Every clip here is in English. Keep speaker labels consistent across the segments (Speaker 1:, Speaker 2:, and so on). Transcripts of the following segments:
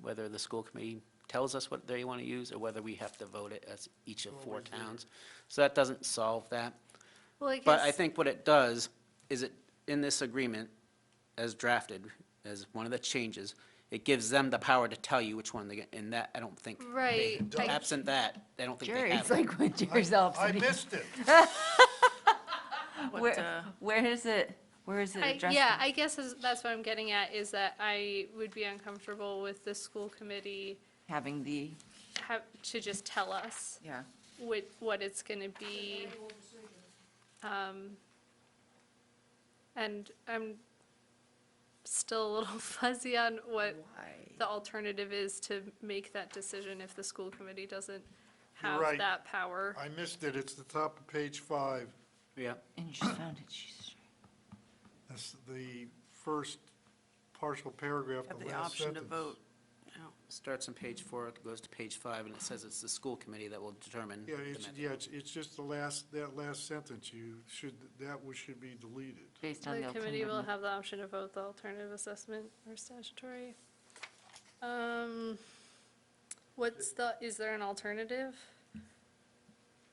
Speaker 1: whether the school committee tells us what they want to use, or whether we have to vote it as each of four
Speaker 2: Always there.
Speaker 1: towns. So that doesn't solve that.
Speaker 3: Well, I
Speaker 1: But I
Speaker 3: guess,
Speaker 1: think what it does is it, in this agreement, as drafted, as one of the changes, it gives them the power to tell you which one they get, and that, I don't think.
Speaker 3: Right,
Speaker 1: they-
Speaker 3: I-
Speaker 1: Absent that, I don't think they
Speaker 4: Jerry,
Speaker 1: have.
Speaker 4: it's
Speaker 1: it.
Speaker 4: like when Jerry's all
Speaker 2: I
Speaker 4: upsetting.
Speaker 2: missed it.
Speaker 5: What,
Speaker 4: Where,
Speaker 5: uh,
Speaker 4: where is it, where is it
Speaker 3: I-
Speaker 4: addressed?
Speaker 3: yeah, I guess is- that's what I'm getting at, is that I would be uncomfortable with the school committee
Speaker 4: Having the,
Speaker 3: have, to just tell us
Speaker 4: yeah,
Speaker 3: what, what it's gonna be. Um, And I'm still a little fuzzy on what the alternative is to make that decision if the school committee doesn't
Speaker 2: You're
Speaker 3: have
Speaker 2: right.
Speaker 3: that power.
Speaker 2: I missed it. It's the top of page five.
Speaker 1: Yeah,
Speaker 4: and you just found it, Jesus.
Speaker 2: That's the first partial paragraph,
Speaker 5: have
Speaker 2: the
Speaker 5: the
Speaker 2: last
Speaker 5: option to
Speaker 2: sentence.
Speaker 5: vote.
Speaker 1: starts on page four, it goes to page five, and it says it's the school committee that will determine.
Speaker 2: Yeah,
Speaker 1: the
Speaker 2: it's,
Speaker 1: method.
Speaker 2: yeah, it's, it's just the last, that last sentence. You should, that was, should be deleted.
Speaker 4: Based on the
Speaker 3: The committee will
Speaker 4: alternative.
Speaker 3: have the option to vote the alternative assessment or statutory. Um, What's the, is there an alternative?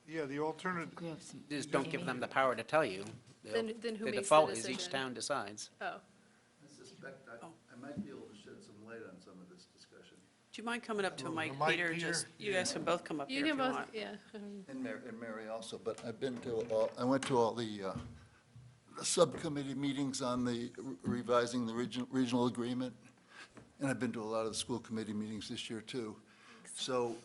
Speaker 2: Yeah, the alternative,
Speaker 4: We have some-
Speaker 1: Just don't give them the power to tell you. They'll-
Speaker 3: Then- then who makes the
Speaker 1: default is each
Speaker 3: decision?
Speaker 1: town decides.
Speaker 3: Oh,
Speaker 6: I suspect I, I might be able to shed some light on some of this discussion.
Speaker 5: Do you mind coming up to
Speaker 2: Oh,
Speaker 5: Mike,
Speaker 2: Mike,
Speaker 5: Peter,
Speaker 2: Peter?
Speaker 5: just, you guys can both come up
Speaker 3: you
Speaker 5: here if you
Speaker 3: can both,
Speaker 5: want.
Speaker 3: yeah. um,
Speaker 7: Mm-hmm.
Speaker 6: And Mary, and Mary also, but I've been to all, I went to all the, uh, the subcommittee meetings on the re- revising the regional, regional agreement. And I've been to a lot of the school committee meetings this year too. So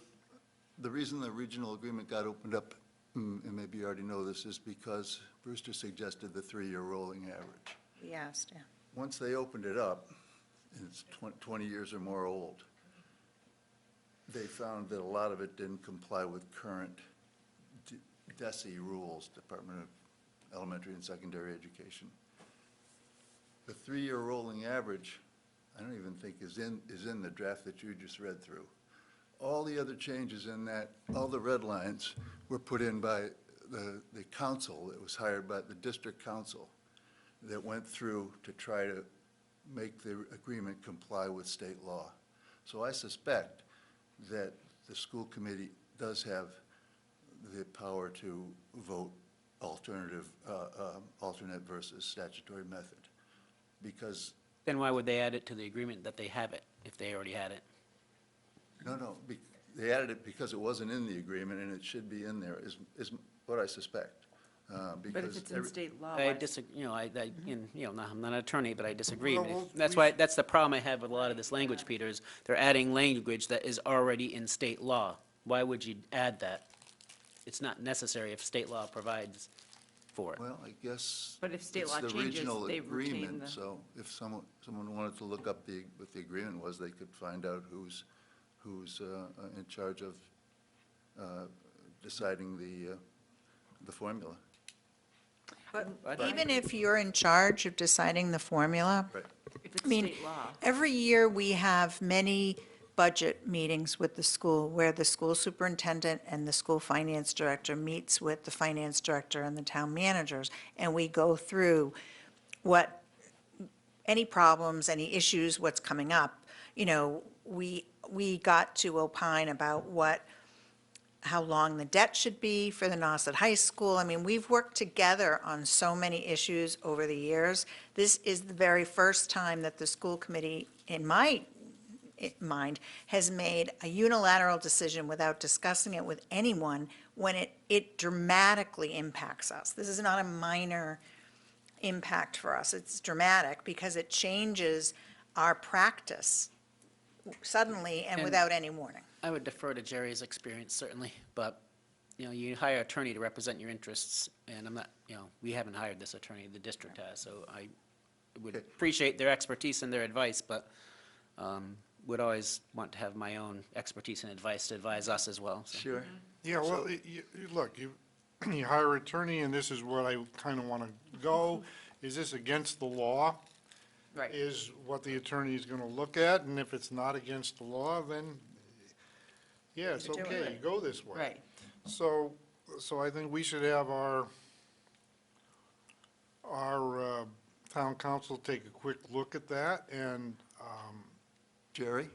Speaker 6: the reason the regional agreement got opened up, mm, and maybe you already know this, is because Brewster suggested the three-year rolling average.
Speaker 7: We asked, yeah.
Speaker 6: once they opened it up, and it's twen- 20 years or more old, they found that a lot of it didn't comply with current D- DESI rules, Department of Elementary and Secondary Education. The three-year rolling average, I don't even think is in, is in the draft that you just read through. All the other changes in that, all the red lines were put in by the, the council that was hired by the district council that went through to try to make the agreement comply with state law. So I suspect that the school committee does have the power to vote alternative, uh, um, alternate versus statutory method. Because,
Speaker 1: Then why would they add it to the agreement that they have it, if they already had it?
Speaker 6: no, no, be- they added it because it wasn't in the agreement and it should be in there, is, is what I suspect. uh,
Speaker 4: But if
Speaker 6: because
Speaker 4: it's in
Speaker 6: every-
Speaker 4: state
Speaker 2: Oh,
Speaker 4: law,
Speaker 1: I
Speaker 4: why-
Speaker 1: disagree, you know, I, I, and, you know, I'm not an attorney, but I disagree.
Speaker 2: Well, well,
Speaker 1: That's
Speaker 2: we-
Speaker 1: why, that's the problem I have with a lot of this language, Peter, is they're adding language that is already in state law. Why would you add that? It's not necessary if state law provides for it.
Speaker 6: Well, I guess.
Speaker 4: But if state
Speaker 6: it's
Speaker 4: law
Speaker 6: the
Speaker 4: changes,
Speaker 6: regional
Speaker 4: they retain
Speaker 6: agreement,
Speaker 4: the-
Speaker 6: So if someone, someone wanted to look up the, what the agreement was, they could find out who's, who's uh, in charge of uh, deciding the, uh, the formula.
Speaker 7: But even if you're in charge of deciding the formula,
Speaker 6: Right.
Speaker 4: if it's
Speaker 7: I mean,
Speaker 4: state law.
Speaker 7: every year we have many budget meetings with the school where the school superintendent and the school finance director meets with the finance director and the town managers, and we go through what, any problems, any issues, what's coming up. You know, we, we got to opine about what, how long the debt should be for the Nauset High School. I mean, we've worked together on so many issues over the years. This is the very first time that the school committee, in my i- mind, has made a unilateral decision without discussing it with anyone when it, it dramatically impacts us. This is not a minor impact for us. It's dramatic because it changes our practice suddenly and
Speaker 1: And-
Speaker 7: without any warning.
Speaker 1: I would defer to Jerry's experience certainly, but, you know, you hire an attorney to represent your interests, and I'm not, you know, we haven't hired this attorney, the district has, so I would appreciate their expertise and their advice, but um, would always want to have my own expertise and advice to advise us as well. so.
Speaker 6: Sure.
Speaker 2: Yeah, well, it- you, you- look, you, you hire attorney, and this is where I kind of want to go. Is this against the law?
Speaker 4: Mm-hmm. Right.
Speaker 2: Is what the attorney is going to look at, and if it's not against the law, then, yeah, it's
Speaker 4: You're doing
Speaker 2: okay,
Speaker 4: it.
Speaker 2: go this way.
Speaker 4: Right,
Speaker 2: So, so I think we should have our, our uh, town council take a quick look at that, and, um,
Speaker 6: Jerry?